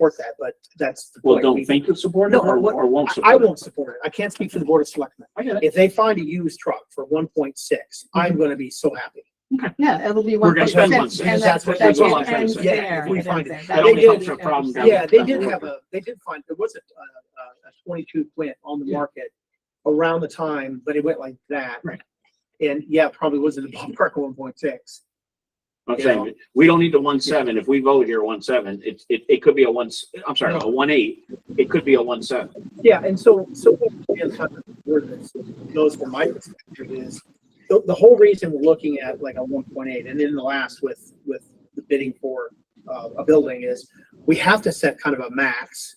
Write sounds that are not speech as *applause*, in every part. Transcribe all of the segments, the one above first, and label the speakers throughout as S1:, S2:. S1: support that, but that's.
S2: Well, don't think you support it
S1: No,
S2: or,
S1: what-
S2: or
S1: I
S2: won't
S1: I
S2: support it?
S1: won't support it. I can't speak for the board of selectmen.
S2: I get it.
S1: If they find a used truck for one point six, I'm gonna be so happy.
S3: Yeah, it'll be
S2: We're
S3: one
S2: gonna
S3: point
S2: spend
S3: six.
S2: money.
S3: And that's what,
S1: That's
S3: that's
S1: all I'm
S3: what
S1: trying to
S3: ends
S1: say.
S3: there.
S1: If we
S3: It
S1: find
S3: ends
S1: it.
S3: there.
S1: That
S3: That's
S1: only
S3: what
S1: helps
S2: our
S3: we
S2: problem down
S3: understand.
S1: Yeah, they
S2: that
S1: did
S2: would
S1: have a, they did find, there was a, a, a twenty-two plant on the market around the time, but it went like that.
S2: Right.
S1: And yeah, probably was in the *laughs* ballpark one point six.
S2: I'm saying, we don't need the one seven. If we vote here one seven, it, it, it could be a one, s- I'm sorry, a one eight. It could be a one seven.
S1: Yeah, and so, so what the other side of the word is, goes from my perspective is, the, the whole reason we're looking at like a one point eight, and then the last with, with the bidding for, uh, a building is, we have to set kind of a max.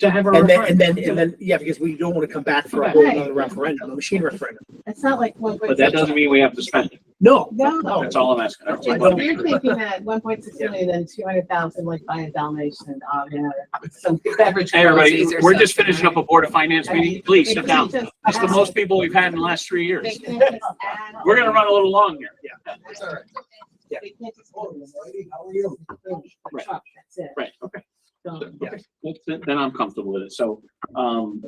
S2: To have
S1: And then, and then, and then, yeah, because we don't want to come back for a whole
S3: Right.
S1: other referendum, a machine referendum.
S3: It's not like one point
S2: But that
S3: six.
S2: doesn't mean we have to spend it.
S1: No.
S3: No.
S2: That's all I'm asking. That's all I'm
S3: If
S2: asking.
S3: you're thinking that one point six
S1: Yeah.
S3: million, then two hundred thousand, like buy a Dalmatian, uh, yeah, some beverage.
S2: Hey, everybody,
S3: policies or
S2: we're just
S3: something,
S2: finishing up a
S3: right?
S2: Board of Finance
S3: I mean,
S2: meeting. Please
S3: we
S2: sit
S3: could
S2: down.
S3: just
S2: It's the
S3: add-
S2: most people we've had in the last three
S3: we
S2: years.
S3: could just add
S2: We're gonna run a little long here.
S3: on.
S4: It's all right.
S1: Yeah.
S3: We can't just build
S4: How are you?
S3: a truck, that's it.
S2: Right, okay.
S3: So-
S2: Okay. Then then I'm comfortable with it. So, um,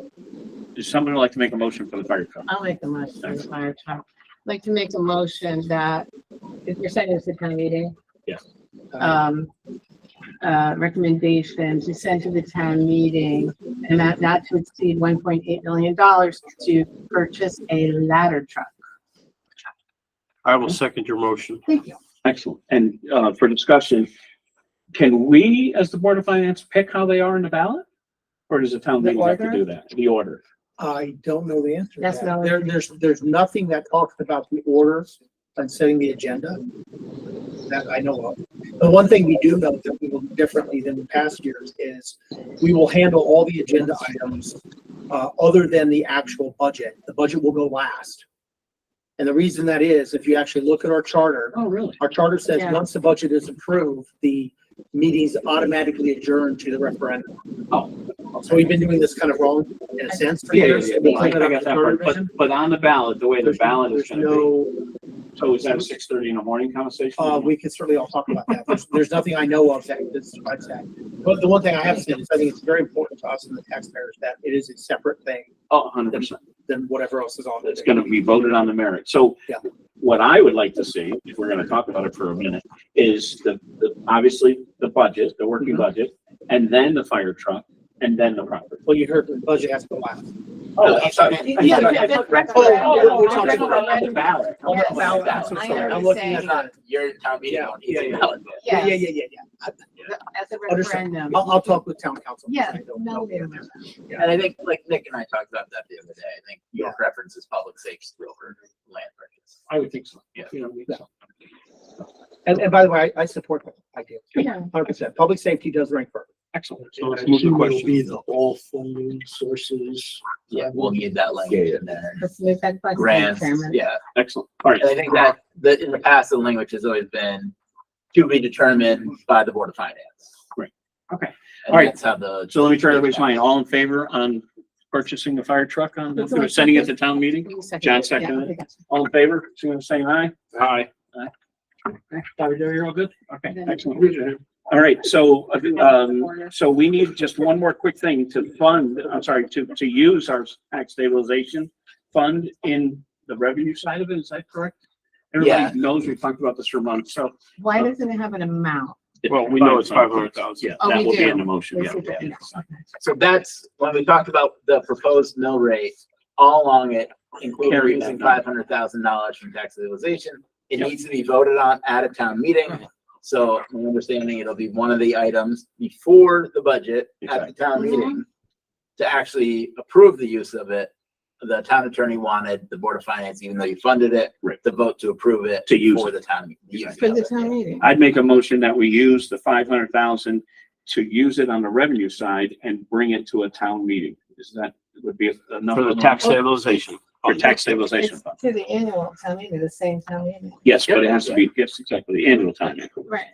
S2: does somebody like to make a motion for the fire truck?
S3: I'll make the motion, for the fire truck. I'd Like to make a motion that, if you're sending this to town meeting, um, uh, recommendation to send to the town meeting an amount not to exceed one point eight million dollars to purchase a ladder *laughs* truck.
S5: I will second your motion.
S3: Thank you.
S2: Excellent. And, uh, for discussion, can we, as the Board of Finance, pick how they are in the ballot? Or does the town
S1: The
S2: meeting have to
S1: order?
S2: do that? The order?
S1: I don't know the answer. to
S3: That's
S1: that.
S3: valid.
S1: There, there's, there's nothing that talks about the orders and setting the agenda that I know of. The one thing we do know that we will do differently than the past years is we will handle all the agenda items uh, other than the actual budget. The budget will go last. And the reason that is, if you actually look at our charter,
S2: Oh, really?
S1: our charter says,
S3: Yeah.
S1: once the budget is approved, the meeting's automatically adjourned to the referendum.
S2: Oh.
S1: So we've been doing this kind of wrong in a sense for
S2: Yeah, yeah,
S1: years.
S2: yeah. Well, I I got that part. But, but on the ballot, the way the
S1: There's
S2: ballot is
S1: there's
S2: gonna be,
S1: no,
S2: so is that a six thirty in the morning conversation?
S1: uh, we can certainly all talk about that. There's, there's nothing I know of that, that's, that's that. But the one thing I have said is I think it's very important to us and the taxpayers that it is a separate thing
S2: Oh, hundred percent.
S1: than whatever else is on
S2: It's
S1: this.
S2: gonna be voted on the merit. So
S1: Yeah.
S2: what I would like to see, if we're gonna talk about it for a minute, is the, the, obviously, the budget, the working
S1: Mhm.
S2: budget, and then the fire truck, and then the property.
S1: Well, you heard the budget has to go last.
S2: Oh, I'm sorry. I
S3: Yeah, yeah,
S2: thought-
S3: yeah,
S2: I
S3: yeah,
S2: thought-
S3: right.
S2: oh, oh,
S1: Yeah,
S2: we're talking about the ballot.
S1: Oh,
S3: Yes.
S1: now that's-
S3: I
S1: I'm sorry. I'm
S3: understand.
S1: looking at that.
S4: You're in town meeting.
S1: Yeah,
S4: on
S1: yeah,
S4: either
S1: yeah.
S4: ballot.
S1: Yeah, yeah,
S3: Yes,
S1: yeah, yeah, yeah.
S3: at the
S1: Understand.
S3: referendum.
S1: I'll, I'll talk with town council.
S3: Yeah,
S1: I don't
S3: no,
S1: know.
S3: we don't.
S4: And I think, like Nick and I talked about that the other day, I think your
S1: Yeah.
S4: preference is public safety over land purchase.
S2: I would think so.
S4: Yeah.
S2: You know, we- so.
S1: And, and by the way, I, I support that idea,
S3: Yeah.
S1: hundred percent. Public safety does rank first.
S2: Excellent.
S5: So let's
S6: I
S5: move the
S6: assume it'll
S5: question.
S6: Be the all funding sources.
S4: Yeah, we'll need that language in there.
S3: Let's move that question,
S4: Grants,
S3: Chairman.
S4: yeah.
S2: Excellent. All right.
S4: And I think that, that in the past, the language has always been to be determined by the Board of Finance.
S2: Right. Okay.
S4: And
S2: All right.
S4: that's how the,
S2: So let me try everybody's mind. All in favor on purchasing the fire truck on, the- or sending it to town meeting?
S3: You second
S2: John
S3: it. Yeah,
S2: seconded it.
S3: I got you.
S2: All in favor? So you're saying aye?
S6: Hi.
S2: Aye. Okay, Sorry, Joe, you're all good? Okay,
S3: Then-
S2: excellent. All right, so, um, so we need just one more quick thing to fund, I'm sorry, to, to use our tax stabilization fund in the revenue side of it, is that correct?
S4: Yeah.
S2: Everybody knows we talked about this for months, so.
S3: Why doesn't it have an amount?
S5: Well, we know it's 500,000.
S2: Yeah,
S3: Oh,
S2: that
S3: we
S2: will be
S3: do.
S2: in the motion, yeah.
S3: Let's see if it-
S2: yeah.
S3: okay.
S4: so that's, when we talked about the proposed mill rate, all along it,
S2: Carry
S4: including
S2: that
S4: using
S2: number.
S4: five hundred thousand dollars from tax stabilization.
S2: Yep.
S4: It
S2: Uh-huh.
S4: needs to be voted on at a town meeting. So my understanding, it'll be one of the items before the budget at the town
S3: Exactly.
S4: meeting to actually approve the use of it. The town attorney wanted the Board of Finance, even though you funded it,
S2: Right.
S4: to vote to approve it.
S2: To use
S4: For the town. the use
S3: For the
S4: of it.
S3: town meeting.
S2: I'd make a motion that we use the five hundred thousand to use it on the revenue side and bring it to a town meeting. Is that, would be enough?
S5: For the tax
S2: Oh.
S5: stabilization.
S2: For tax stabilization
S3: It's
S2: fund.
S3: to the annual town meeting, the same town meeting.
S2: Yes, but it has to be, yes, exactly, the annual time.
S3: Right.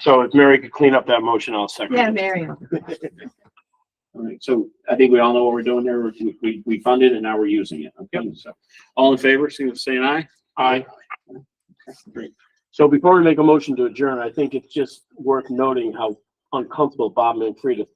S5: So if Mary could clean up that motion, I'll second.
S3: Yeah,
S5: it.
S3: Marion.
S2: All right, so I think we all know what we're doing there. We- We, we funded and now we're using it. Okay, so all in favor, say say an aye.
S5: Aye.
S2: Great.
S5: So before we make a motion to adjourn, I think it's just worth noting how uncomfortable Bob Manfreda